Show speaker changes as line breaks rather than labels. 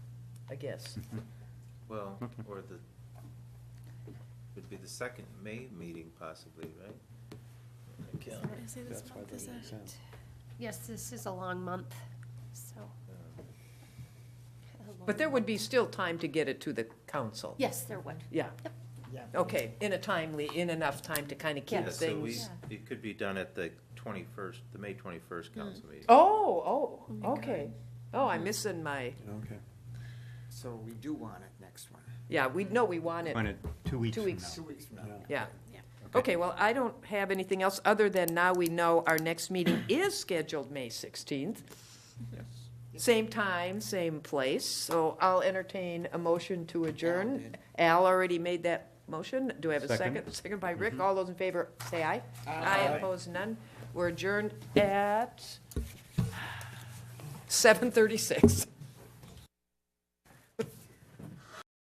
I guess.
Well, or the, would be the second May meeting possibly, right? Okay.
What did I say this
That's why
month
that
is
makes
at?
sense.
Yes, this is a long month, so.
Um,
a
But there
long-
would be still time to get it to the council.
Yes, there would.
Yeah,
Yeah.
okay, in a timely, in enough time to kind of
Yeah,
keep
so we,
things.
Yeah.
it could be done at the twenty-first, the May twenty-first council meeting.
Oh,
Mm.
oh, okay. Oh, I'm missing my,
Okay.
So we do want it next one,
yeah, we know we want it.
On it, two weeks
Two
from
weeks.
two weeks from now.
Yeah.
Yeah.
Yeah.
Okay, well, I don't have anything else, other than now we know our next meeting is scheduled May 16th. Same time, same place, so I'll entertain a motion to adjourn.
did.
Al already made that motion. Do I have a
Second.
second? Second by Rick. All those in favor, say aye.
Aye.
Opposed, none. We're adjourned at 7:36.